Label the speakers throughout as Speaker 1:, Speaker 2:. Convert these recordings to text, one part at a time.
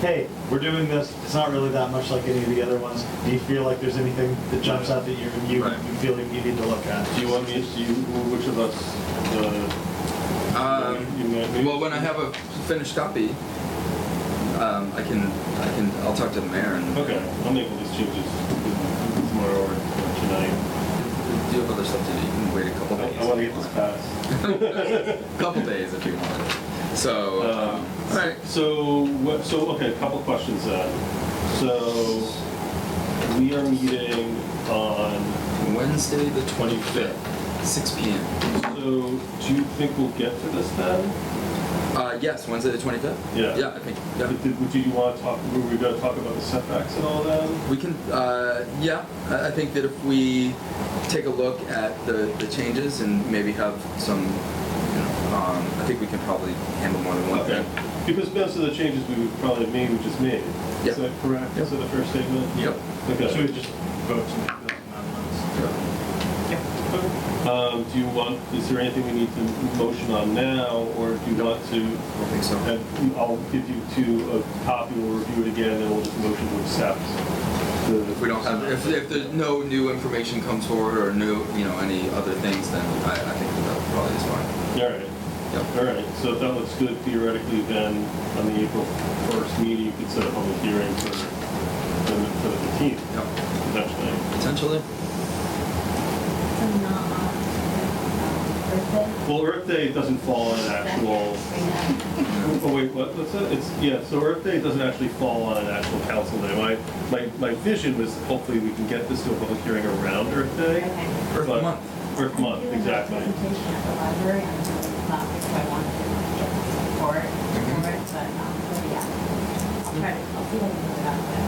Speaker 1: hey, we're doing this, it's not really that much like any of the other ones. Do you feel like there's anything that jumps out that you, you
Speaker 2: Right.
Speaker 1: you feel like you need to look at?
Speaker 3: Do you want me, to- do you, which of us, uh, the,
Speaker 2: Um,
Speaker 3: you may-
Speaker 2: well, when I have a finished copy, um, I can, I can, I'll talk to the mayor and.
Speaker 3: okay, I'll make all these changes tomorrow or tonight.
Speaker 2: Do you have other stuff to do? You can wait a couple
Speaker 3: I-
Speaker 2: days.
Speaker 3: I wanna
Speaker 2: if
Speaker 3: get
Speaker 2: you want.
Speaker 3: this passed.
Speaker 2: Couple days if you want. So, um,
Speaker 3: Um,
Speaker 2: all right.
Speaker 3: So, what, so, okay, a couple questions then. So, we are meeting on,
Speaker 2: Wednesday the 25th, 6 p.m.
Speaker 3: so do you think we'll get to this then?
Speaker 2: Uh, yes, Wednesday the 25th?
Speaker 3: Yeah.
Speaker 2: Yeah, I think. Yeah.
Speaker 3: Did, did- do you wanna talk, were we gonna talk about the setbacks and all that?
Speaker 2: We can, uh, yeah, I I think that if we take a look at the, the changes and maybe have some, you know, um, I think we can probably handle more than one
Speaker 3: Okay,
Speaker 2: thing.
Speaker 3: because most of the changes we would probably have made, we just made.
Speaker 2: Yep.
Speaker 3: Is that correct?
Speaker 2: Yep.
Speaker 3: Is that the first statement?
Speaker 2: Yep.
Speaker 1: Should
Speaker 3: Okay.
Speaker 1: we just vote to make those amendments?
Speaker 3: Um, do you want, is there anything we need to motion on now, or do you want to,
Speaker 2: I don't think so.
Speaker 3: and I'll give you two a copy, we'll review it again, and we'll just motion to accept the.
Speaker 2: If we don't have, if, if there's no new information comes forward or no, you know, any other things, then I, I think that probably is fine.
Speaker 3: All right,
Speaker 2: Yep.
Speaker 3: all right, so if that looks good theoretically, then on the April first meeting, you could set a public hearing for, for the fifteenth,
Speaker 2: Yep.
Speaker 3: potentially.
Speaker 2: Potentially.
Speaker 4: It's not on
Speaker 3: Well, Earth Day doesn't fall on an actual,
Speaker 4: Thursday.
Speaker 3: oh wait, what, what's that? It's, yeah, so Earth Day doesn't actually fall on an actual council day. My, my, my vision was hopefully we can get this to a public hearing around Earth Day.
Speaker 4: Okay.
Speaker 2: Earth
Speaker 3: but-
Speaker 2: Month.
Speaker 3: Earth Month, exactly.
Speaker 4: I'm doing a presentation at the library on some topics I wanted to get some support for it, but, um, so, yeah. I'll try to, I'll see what I can do about that.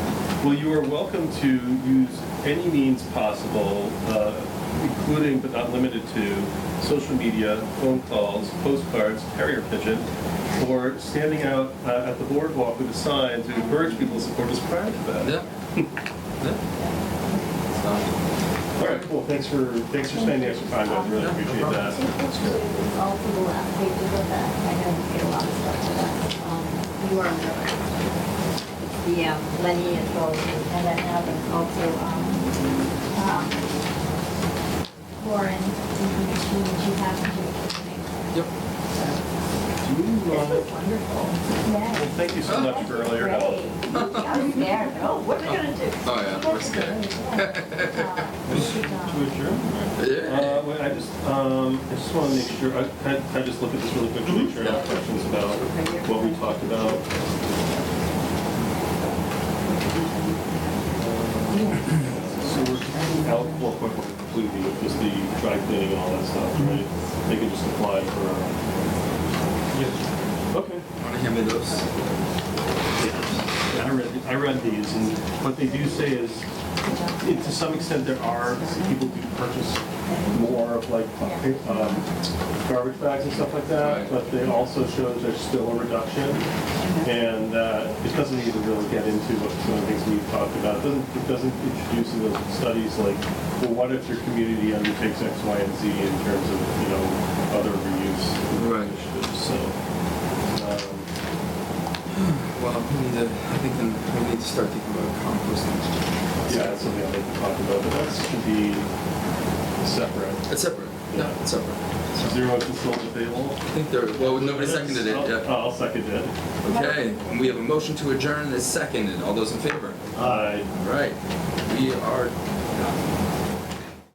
Speaker 3: Well, you are welcome to use any means possible, uh, including but not limited to social media, phone calls, postcards, carrier pigeon, or standing out uh, at the boardwalk with a sign to encourage people to support us prior to that.
Speaker 2: Yeah. yeah. So,
Speaker 3: All right, cool. Thanks for, thanks for spending the extra time. I really appreciate that.
Speaker 4: Take pictures, it's all for the last pages of that, I know you get a lot of stuff for that, um, you are the, the, um, Lenny as well, and then having also, um, um, Lauren, information that you have to do.
Speaker 2: yep.
Speaker 3: Do you,
Speaker 4: This
Speaker 3: uh,
Speaker 4: was wonderful.
Speaker 3: Well,
Speaker 4: Yeah.
Speaker 3: thank you so much for all your help.
Speaker 4: I was there, no, what are we gonna do? Uh,
Speaker 2: Oh, yeah, we're scared.
Speaker 4: um,
Speaker 1: To adjourn?
Speaker 2: Yeah.
Speaker 3: Uh, wait, I just, um, I just want to make sure, I, can I just look at this really quick to make sure I have questions about what we talked about? So we're taking out, well, quite quite completely, with just the dry cleaning and all that stuff, right? They can just apply for, uh, okay.
Speaker 2: Want to hand me those?
Speaker 3: I read, I read these, and what they do say is, it- to some extent, there are, people do purchase more of like um, garbage bags and stuff like that,
Speaker 2: Right.
Speaker 3: but they also show there's still a reduction, and uh, it doesn't even really get into what some of the things we've talked about. It doesn't, it doesn't introduce into studies like, well, what if your community undertakes X, Y, and Z in terms of, you know, other reuse
Speaker 2: Right.
Speaker 3: initiatives, so. um,
Speaker 2: Well, we need to, I think then we need to start thinking about composting.
Speaker 3: Yeah, that's something I'd like to talk about, but that's to be separate.
Speaker 2: It's separate. Yeah, it's separate.
Speaker 3: Is
Speaker 2: So,
Speaker 3: there a motion still on the table?
Speaker 2: I think there, well, nobody seconded it
Speaker 3: I'll-
Speaker 2: yet.
Speaker 3: I'll second it.
Speaker 2: Okay, and we have a motion
Speaker 3: Uh,
Speaker 2: to adjourn that's seconded. All those in favor?
Speaker 3: I
Speaker 2: All right, we are done.